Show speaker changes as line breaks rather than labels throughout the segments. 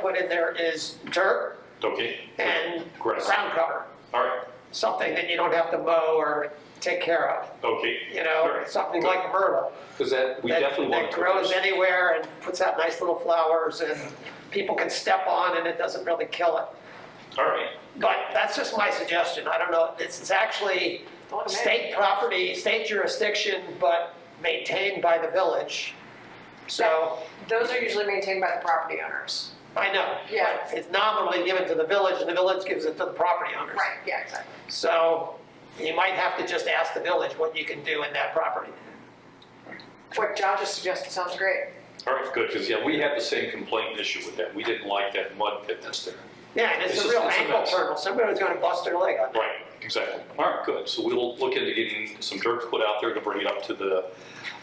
put in there is dirt
Okay,
and
Grass.
ground cover,
all right,
something that you don't have to mow or take care of,
okay.
you
All
know,
right.
something
Good.
like myrtle.
Because that, we
that-
definitely want to.
That grows anywhere and puts out nice little flowers and people can step on and it doesn't really kill it.
All right,
But that's just my suggestion, I don't know, it's, it's actually state property, state jurisdiction, but maintained by the village. So,
Those are usually maintained by the property owners.
I know.
Yeah.
It's nominally given to the village and the village gives it to the property owners.
Right, yeah, exactly.
So you might have to just ask the village what you can do in that property.
What John just suggested sounds great.
all right, good, because yeah, we had the same complaint issue with that. We didn't like that mud pit that's there.
Yeah, and it's
It's
a
just-
real
it's a
ankle
mess.
turtle, somebody's gonna bust their leg on that.
Right, exactly. All right, good. So we'll look into getting some dirt put out there to bring it up to the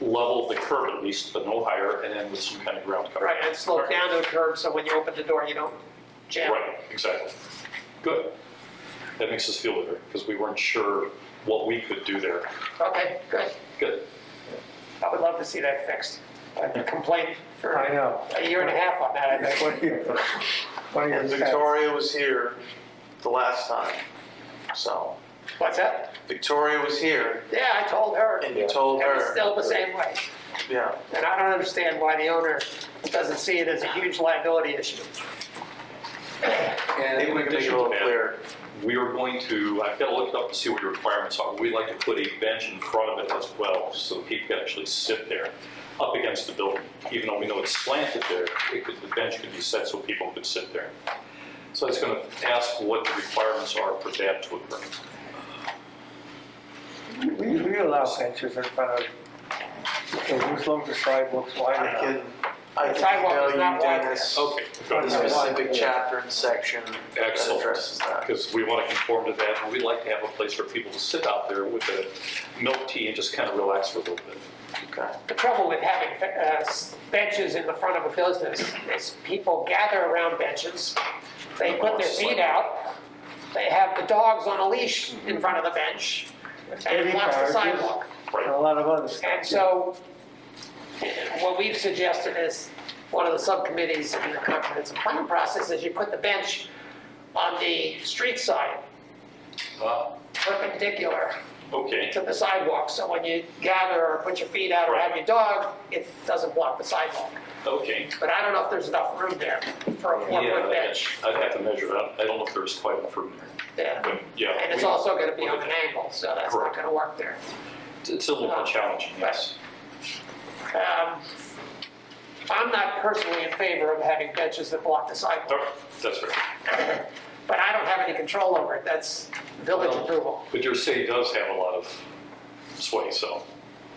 level of the curb at least, but no higher, and then with some kind of ground cover.
Right, and slow it down to a curve, so when you open the door, you don't jam.
Right, exactly. Good. That makes us feel better, because we weren't sure what we could do there.
Okay, good.
Good.
I would love to see that fixed. I've complained for
I
a
know.
year and a half on that, I think.
What do you- what do you
And
think?
Victoria was here the last time, so.
What's that?
Victoria was here,
Yeah, I told her.
and you told
And it's
her,
still the same way.
yeah.
And I don't understand why the owner doesn't see it as a huge liability issue.
And
Maybe we can make it a little clearer.
We are going to, I've got to look it up to see what your requirements are. We'd like to put a bench in front of it as well, so people can actually sit there up against the building. Even though we know it's slanted there, it could, the bench could be set so people could sit there. So I was going to ask what the requirements are for that to occur.
We, we allow benches in front of, as long as the sidewalk's
I
wide enough.
can, I
The sidewalk is
can
not
email you
wide
Dennis,
Okay.
the specific chapter and section that
Excellent.
addresses that.
Because we want to conform to that, and we'd like to have a place for people to sit out there with a milk tea and just kind of relax for a little bit.
Okay.
The trouble with having uh, benches in the front of a business is people gather around benches, they put their feet out, they have the dogs on a leash in front of the bench, and
Maybe
it blocks the
barges.
sidewalk.
And a lot of other stuff.
And so, what we've suggested is, one of the subcommittees in the comprehensive planning process is you put the bench on the street side,
Uh,
perpendicular
Okay,
to the sidewalk, so when you gather or put your feet out or have your dog, it doesn't block the sidewalk.
okay.
But I don't know if there's enough room there for a
Yeah,
four-foot bench.
I'd have to measure that. I don't know if there's quite enough room there.
Yeah.
But yeah.
And it's
we-
also gonna be on an angle, so that's not
Correct.
gonna work there.
It's a little more challenging, yes.
Um, I'm not personally in favor of having benches that block the
All
sidewalk,
right, Oh, that's right.
but I don't have any control over it, that's village
Well-
approval.
But your city does have a lot of sway, so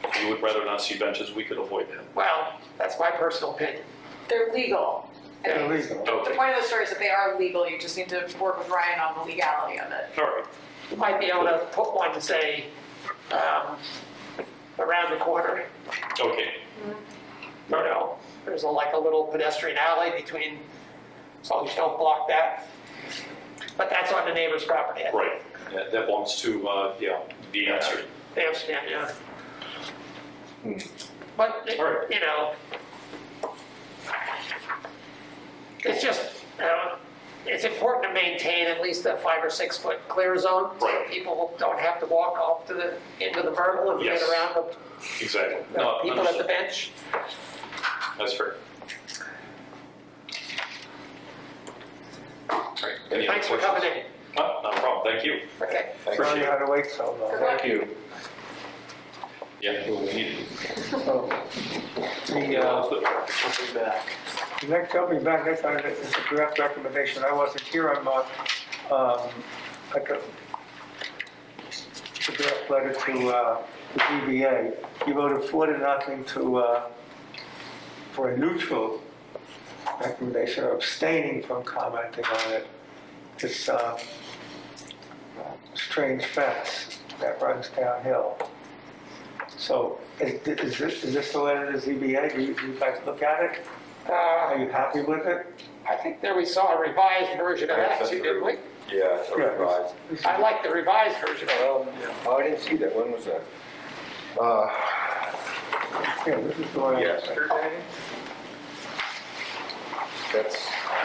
if you would rather not see benches, we could avoid that.
Well, that's my personal opinion.
They're legal. I
Yeah,
mean,
Illegal.
The
Okay,
point of the story is that they are legal, you just need to work with Ryan on the legality of it.
all right.
You might be able to put one, say, um, around the corner,
Okay,
you know, there's a- like a little pedestrian alley between, so you don't block that. But that's on the neighbor's property, I think.
right. That that belongs to, uh, yeah, the answer.
They understand, yeah.
Hmm.
But, it-
Alright.
you know. It's just, uh, it's important to maintain at least a five or six foot clear zone. so
Right.
People don't have to walk off to the, into the vertical and get
Yes.
around the
Exactly.
the
No,
people at the
understood.
bench.
That's fair. All right, any other
Thanks for
questions?
coming in.
Huh? Not a problem, thank you.
Okay.
Sorry you had to wait so long.
Thank you.
Yeah, we need it.
So, The, uh,
We'll be back.
the next, I'll be back next time, it's a draft recommendation, I wasn't here on my, um, like a, the draft letter to, uh, the DBA. You voted four to nothing to, uh, for a neutral recommendation, or abstaining from commenting on it. It's, uh, strange fence that runs downhill. So, is, is this, is this the letter to ZBA, do you, do you guys look at it? Are
Uh,
you happy with it?
I think there we saw a revised version of that too, didn't we?
Yeah, it's
Yeah.
revised.
I like the revised version of it.
Um, Oh, I didn't see that, when was that? Uh,
Yeah, this is the one.
Yes. That's,